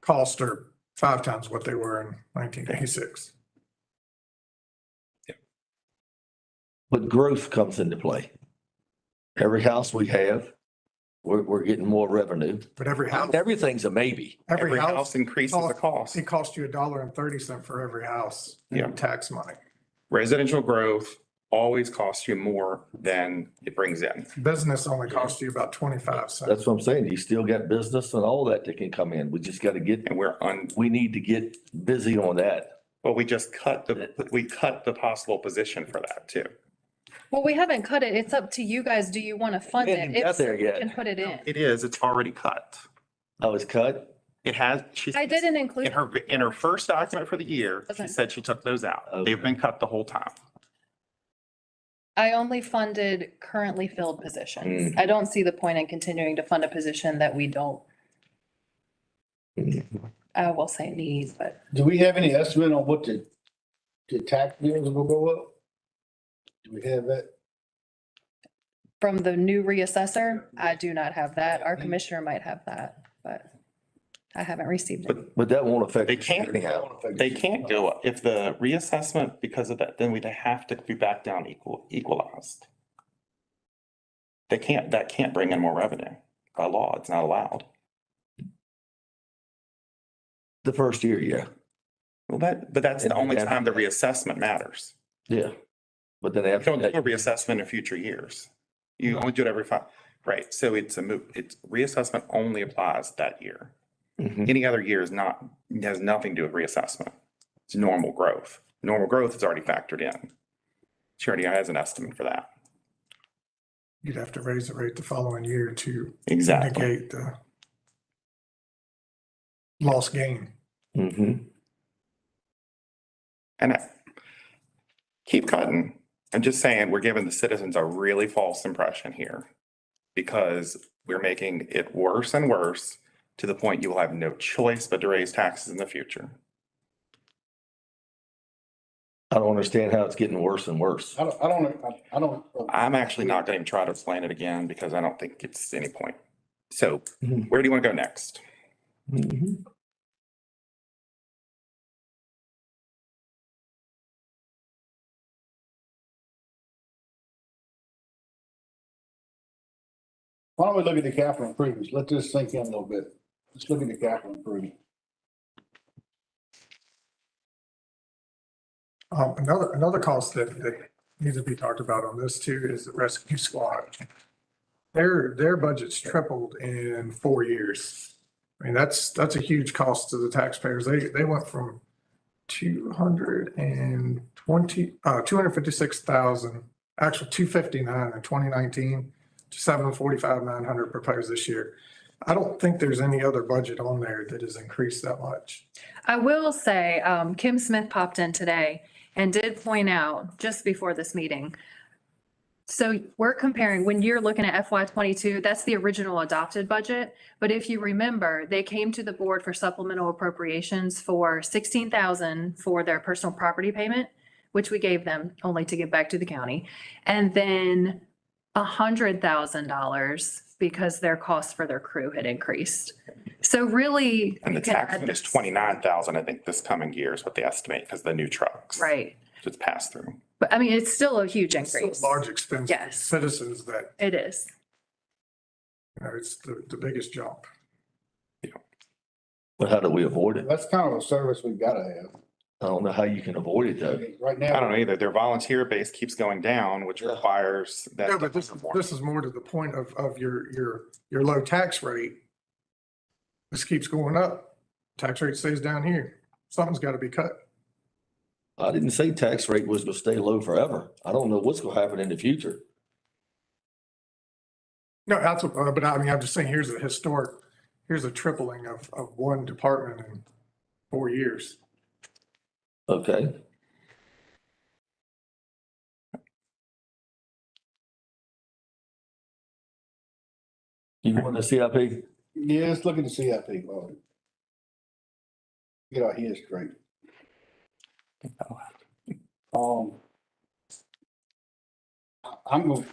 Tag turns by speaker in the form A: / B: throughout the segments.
A: costs are five times what they were in nineteen eighty-six.
B: But growth comes into play. Every house we have, we're, we're getting more revenue.
A: But every house,
B: Everything's a maybe.
A: every
C: Every
A: house,
C: house increases the cost.
A: it costs you a dollar and thirty cent for every house
C: Yeah.
A: in tax money.
C: Residential growth always costs you more than it brings in.
A: Business only costs you about twenty-five cents.
B: That's what I'm saying. You still got business and all that that can come in. We just got to get,
C: And we're on,
B: we need to get busy on that.
C: well, we just cut the, we cut the possible position for that too.
D: Well, we haven't cut it. It's up to you guys. Do you want to fund
B: We
D: it?
B: haven't
D: If
B: got
D: so,
B: there
D: we
B: yet.
D: Can put it in.
C: It is, it's already cut.
B: I was cut.
C: It has, she's.
D: I didn't
C: In
D: include,
C: her, in her first document for the year, she
D: Doesn't-
C: said she took those out. They've
B: Okay.
C: been cut the whole time.
D: I only funded currently filled
B: Mm.
D: positions. I don't see the point in continuing to fund a position that we don't, I will say need, but
E: Do we have any estimate on what the, the tax bills will go up? Do we have that?
D: from the new reassessor, I do not have that.
C: Mm.
D: Our commissioner might have that, but I haven't received it.
B: But that won't affect.
C: They can't-
B: anyhow.
C: They can't go up. If the reassessment, because of that, then we'd have to be back down equal, equalized. They can't, that can't bring in more revenue. By law, it's not allowed.
B: The first year, yeah,
C: Well, that, but that's the only time the reassessment matters.
B: yeah. But then
C: You
B: after
C: don't do a
B: that,
C: reassessment in future years. You only do it every five, right? So it's a move, it's reassessment only applies that year.
B: Mhm.
C: Any other year is not, has nothing to do with reassessment. It's normal growth. Normal growth is already factored in. She already has an estimate for that.
A: You'd have to raise the rate the following year to
C: Exactly.
A: negate the lost gain.
B: Mhm.
C: And I- keep cutting. I'm just saying, we're giving the citizens a really false impression here because we're making it worse and worse to the point you will have no choice but to raise taxes in the future.
B: I don't understand how it's getting worse and worse.
E: I don't, I don't, I- I don't.
C: I'm actually not going to even try to explain it again because I don't think it's any point. So
A: Mm-hmm.
B: Mhm.
C: where do you want to go next?
B: Mhm.
E: Why don't we look at the capital improvements? Let this sink in a little bit. Let's look at the capital improvement.
A: Um, another, another cost that, that needs to be talked about on this too is the rescue squad. Their, their budget's tripled in four years. I mean, that's, that's a huge cost to the taxpayers. They, they went from two hundred and twenty, uh, two hundred fifty-six thousand, actually two fifty-nine in twenty nineteen to seven forty-five, nine hundred proposed this year. I don't think there's any other budget on there that has increased that much.
D: I will say, um, Kim Smith popped in today and did point out just before this meeting. So we're comparing, when you're looking at FY twenty-two, that's the original adopted budget. But if you remember, they came to the board for supplemental appropriations for sixteen thousand for their personal property payment, which we gave them only to give back to the county. And then a hundred thousand dollars because their costs for their crew had increased. So really.
C: And the
D: you can
C: tax
D: add
C: one is
D: this-
C: twenty-nine thousand, I think, this coming year is what they estimate because the new trucks.
D: Right.
C: It's passed through.
D: But I mean, it's still a huge
A: It's still a
D: increase.
A: Large expense. to
D: Yes.
A: Citizens that
D: It is.
A: You know, it's the, the biggest jump.
B: But how do we avoid it?
E: That's kind of a service we gotta have.
B: I don't know how you can avoid it
E: I
B: though.
E: mean, Right
C: I don't
E: now,
C: know either. Their volunteer base keeps going down, which
B: Yeah.
C: requires that.
A: No, but this, this is more to the point of, of your, your, your low tax rate. This keeps going up. Tax rate stays down here. Something's got to be cut.
B: I didn't say tax rate was gonna stay low forever. I don't know what's gonna happen in the future.
A: No, that's, what- uh, but I mean, I'm just saying, here's a historic, here's a tripling of, of one department in four years.
B: Okay, you want the CIP?
E: yeah, let's look at the CIP, Lloyd. Get our heads straight. Um. I- I'm gonna,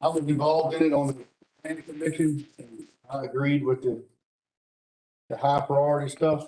E: I was involved in it on the planning commission and I agreed with the the high priority stuff.